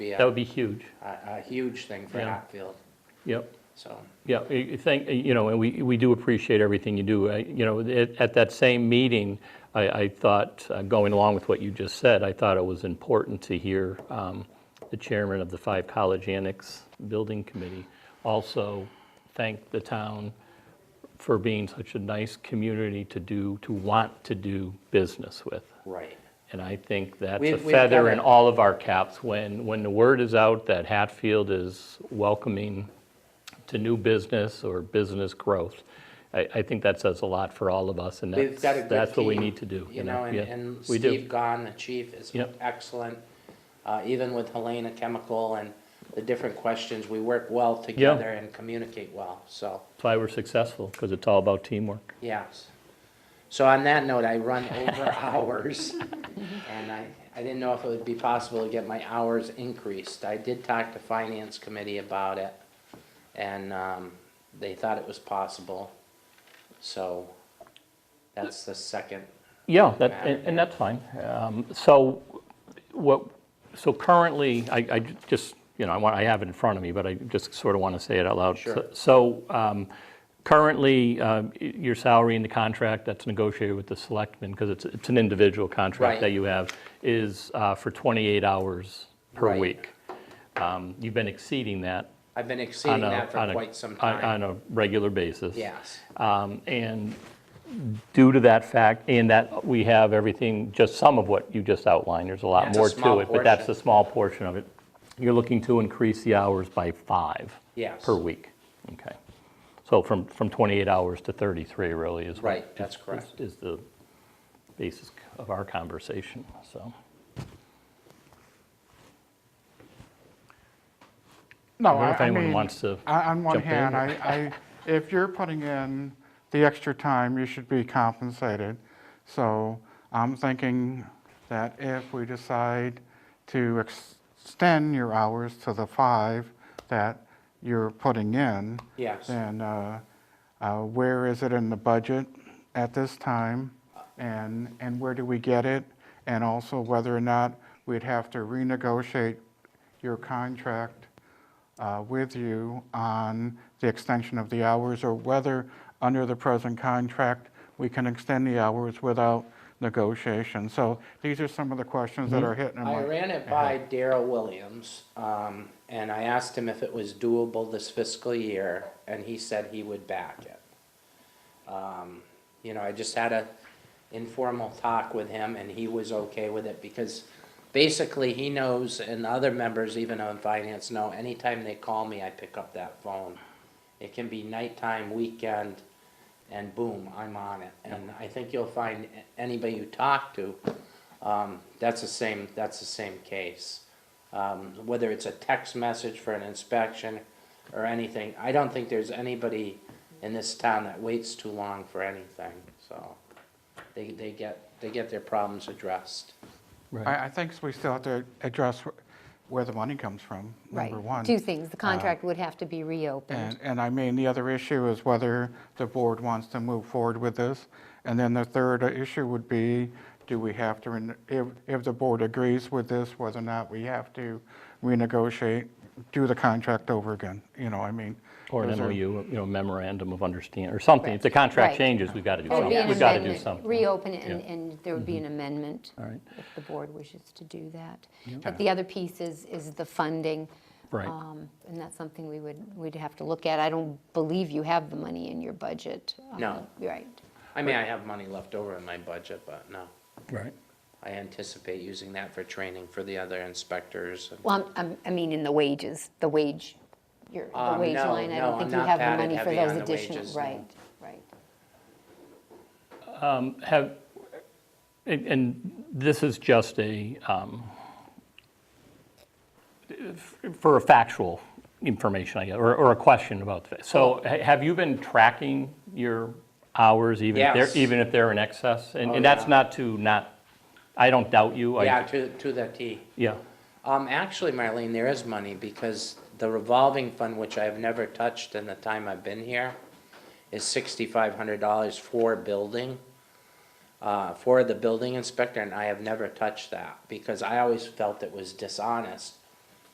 be That a, would be huge. a, a huge thing for Yeah. Hatfield, Yep, so. yeah, I- I thank, you know, and we, we do appreciate everything you do. I- You know, at, at that same meeting, I, I thought, uh, going along with what you just said, I thought it was important to hear um, the chairman of the Five College Annex Building Committee also thank the town for being such a nice community to do, to want to do business with. Right. And I think that's a We've- we've feather got in it. all of our caps when, when the word is out that Hatfield is welcoming to new business or business growth. I, I think that says a lot for all of us, and We've that's, got a good that's what we team, need to do. You know, and, Yeah, and we do. Steve Gahn, the chief, is Yep. excellent. Uh, even with Helena Chemical and the different questions, we work well together and communicate well, so, That's why we're successful, because it's all about teamwork. yes. So on that note, I run over hours, and I, I didn't know if it would be possible to get my hours increased. I did talk to Finance Committee about it, and, um, they thought it was possible, so that's the second Yeah, that, matter. and and that's fine. Um, So what, so currently, I, I ju- just, you know, I want, I have it in front of me, but I just sort of want to say it out loud. Sure. So um, currently, um, y- your salary in the contract that's negotiated with the selectmen, because it's, it's an individual contract Right. that you have, is uh, for 28 hours per Right. week. Um, You've been exceeding that I've been on exceeding a. that on for a- quite some on- time. On a regular basis. Yes, Um, And due to that fact, and that we have everything, just some of what you just outlined, there's a lot That's a more to small it, but that's portion. a small portion of it. You're looking to increase the hours by five yes, per week. Okay. So from, from 28 hours to 33 really is. what- Right, that's is- correct. Is the basis of our conversation, so. I No, don't know I, if I anyone mean, on wants to on one jump in hand, or- I, I, if you're putting in the extra time, you should be compensated. So I'm thinking that if we decide to ex- extend your hours to the five that you're putting in, yes. then uh, uh, where is it in the budget at this time? And, and where do we get it? And also whether or not we'd have to renegotiate your contract uh, with you on the extension of the hours, or whether, under the present contract, we can extend the hours without negotiation. So these are some of the questions that are hitting in I my- ran it by Daryl Williams, um, and I asked him if it was doable this fiscal year, and he said he would back it. Um, you know, I just had a informal talk with him, and he was okay with it, because basically he knows, and other members even on finance know, anytime they call me, I pick up that phone. It can be nighttime, weekend, and boom, I'm on it. And I think you'll find a- anybody you talk to, um, that's the same, that's the same case. Um, whether it's a text message for an inspection or anything, I don't think there's anybody in this town that waits too long for anything, so. They, they get, they get their problems addressed. I, I think we still have to address wh- where the money comes from, Right. number one. Two things, the contract would have to be And, reopened. and I mean, the other issue is whether the board wants to move forward with this. And then the third issue would be, do we have to, ren- if, if the board agrees with this, whether or not we have to renegotiate, do the contract over again, you know, I mean. Or an those are- MOU, you know, memorandum of understanding, or something. If the Right. contract changes, we've got to do There Oh, would be something. an We've got to do amendment. something. Reopen it, and- Yeah. and there would be Mm-hmm. an amendment. All right. If the board wishes to do that. Okay. But the other piece is, is the funding. Right. um, And that's something we would, we'd have to look at. I don't believe you have the money in your budget. um, No. Right. I mean, I have money left over in my budget, but no. Right. I anticipate using that for training for the other inspectors and Well, I'm- I'm, I mean, in the wages, the wage, your, the Um, wage no, line. I no, don't think I'm you not have the padded money for heavy those on the additional. wages, no. Right, right. Have, and- and this is just a, um, for a factual information, I guess, or or a question about, the so ha- have you been tracking your hours even if Yes. they're, even if they're in excess? And Oh, and that's yeah. not to not, I don't doubt you. I- Yeah, to, to the T. Yeah, Um, actually, Marlene, there is money because the revolving fund, which I have never touched in the time I've been here, is sixty-five hundred dollars for building, uh, for the building inspector, and I have never touched that because I always felt it was dishonest